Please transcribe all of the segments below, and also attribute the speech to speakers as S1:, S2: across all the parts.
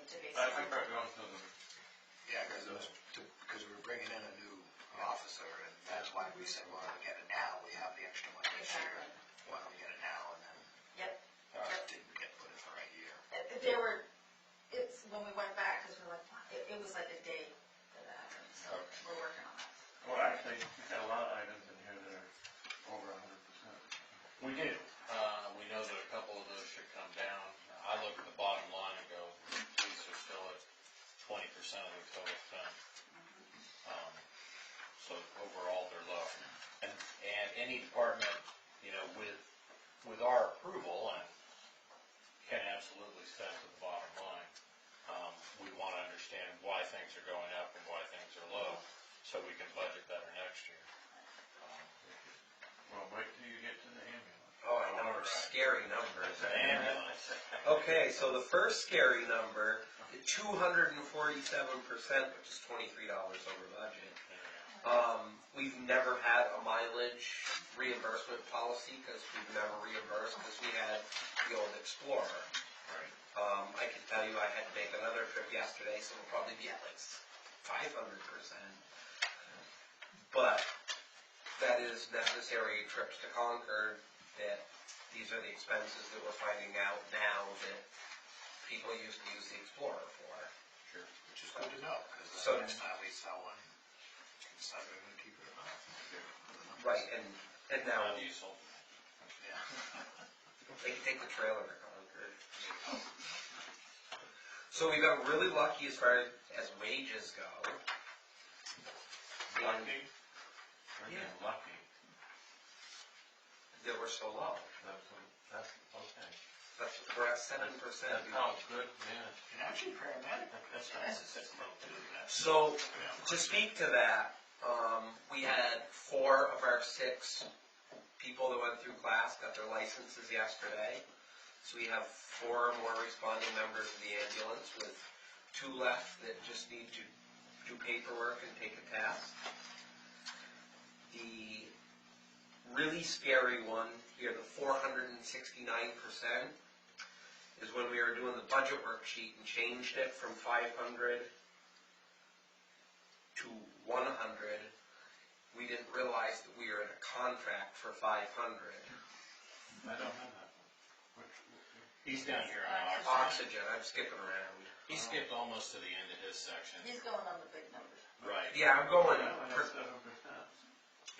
S1: Right, right, we all know them.
S2: Yeah, because those, because we're bringing in a new officer, and that's why we said, well, we get it now, we have the extra money this year. Why don't we get it now, and then
S3: Yep.
S2: it didn't get put in the right year.
S3: Uh, There were, it's, when we went back, because we're like, it, it was like a day that that happened, so we're working on that.
S1: Well, actually, we've got a lot of items in here that are over a hundred percent.
S4: We do. Uh, we know that a couple of those should come down. I look at the bottom line and go, police are still at twenty percent of the total spend. Um, So overall, they're low. And, and any department, you know, with, with our approval and can absolutely set to the bottom line. Um, we wanna understand why things are going up and why things are low, so we can budget better next year. Um,
S1: Well, wait till you get to the ambulance.
S5: Oh, I know, scary numbers.
S4: Ambulance.
S5: Okay, so the first scary number, two hundred and forty-seven percent, which is twenty-three dollars over budget. Um, we've never had a mileage reimbursement policy, cause we've never reimbursed, cause we had the old Explorer. Um, I can tell you I had to make another trip yesterday, so we'll probably be at like five hundred percent. But that is necessary trips to Concord, that these are the expenses that we're finding out now that people used to use the Explorer for.
S2: Which is good to know, because
S5: So-
S2: the next time we sell one, we can decide whether to keep it or not.
S5: Right, and, and now,
S4: Diesel.
S2: Yeah.
S5: they can take the trailer to Concord. So we got really lucky as far as wages go. And
S1: Lucky? We're getting lucky.
S5: They were so low,
S1: That's, what- that's, okay.
S5: but we're at seven percent.
S1: That's how oh, good man.
S2: And actually paramedic, that's nice, it's just low too, that's,
S5: So
S2: yeah.
S5: to speak to that, um, we had four of our six people that went through class got their licenses yesterday. So we have four more responding members of the ambulance with two left that just need to do paperwork and take a test. The really scary one here, the four hundred and sixty-nine percent, is when we were doing the budget worksheet and changed it from five hundred to one hundred, we didn't realize that we were in a contract for five hundred.
S1: I don't have that one. Which, which-
S4: He's down here on our.
S5: Oxygen, I'm skipping around.
S4: He skipped almost to the end of his section.
S3: He's going on the big numbers.
S4: Right.
S5: Yeah, I'm going,
S1: I only have
S5: per-
S1: seven percent.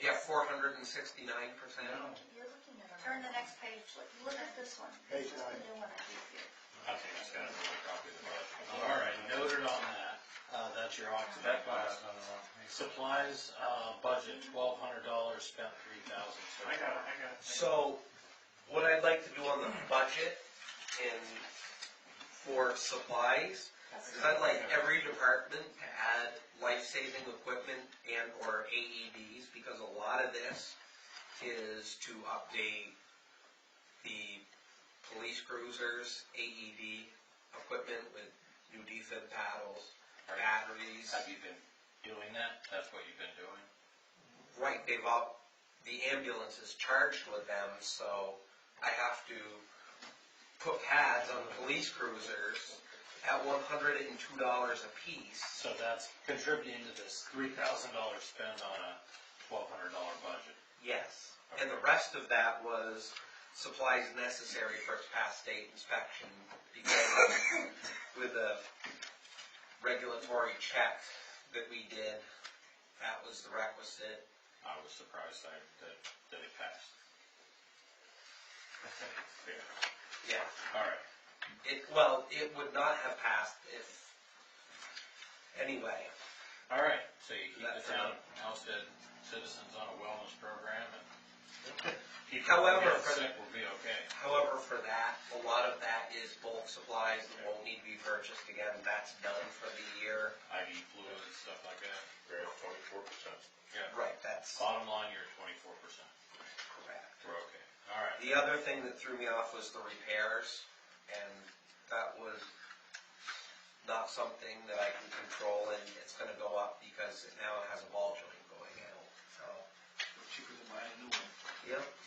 S5: yeah, four hundred and sixty-nine percent.
S3: You're looking at, turn the next page, look, look at this one.
S2: Page
S3: Just the
S2: nine.
S3: new one I gave you.
S4: I think he's got another copy of the budget. All right, noted on that. Uh, that's your oxygen
S1: That's why I
S4: cost.
S1: was on the wrong page.
S4: Supplies, uh, budget, twelve hundred dollars, spent three thousand.
S1: I got it, I got it.
S5: So, what I'd like to do on the budget and for supplies, is I'd like every department to add life-saving equipment and or AEDs, because a lot of this is to update the police cruisers, AED equipment with new defib paddles, batteries.
S4: Have you been doing that? That's what you've been doing?
S5: Right, they've all, the ambulance is charged with them, so I have to put pads on police cruisers at one hundred and two dollars apiece.
S4: So that's contributing to this three thousand dollar spend on a twelve hundred dollar budget.
S5: Yes. And the rest of that was supplies necessary for past state inspection, because with a regulatory check that we did, that was the requisite.
S4: I was surprised I, that, that it passed. Yeah.
S5: Yeah.
S4: All right.
S5: It, well, it would not have passed if, anyway.
S4: All right, so you keep the
S5: That's
S4: town of Hempstead citizens on a wellness program and people who
S5: However,
S4: get
S5: for-
S4: sick will be okay.
S5: However, for that, a lot of that is bulk supplies that won't need to be purchased again. That's done for the year.
S4: IV fluid and stuff like that.
S6: We're at twenty-four percent.
S4: Yeah.
S5: Right, that's
S4: Bottom line, you're twenty-four percent.
S5: correct.
S4: We're okay. All right.
S5: The other thing that threw me off was the repairs, and that was not something that I can control, and it's gonna go up because it now has a ball joint going out, so.
S2: cheaper than buying a new one.
S5: Yep.
S4: Uh,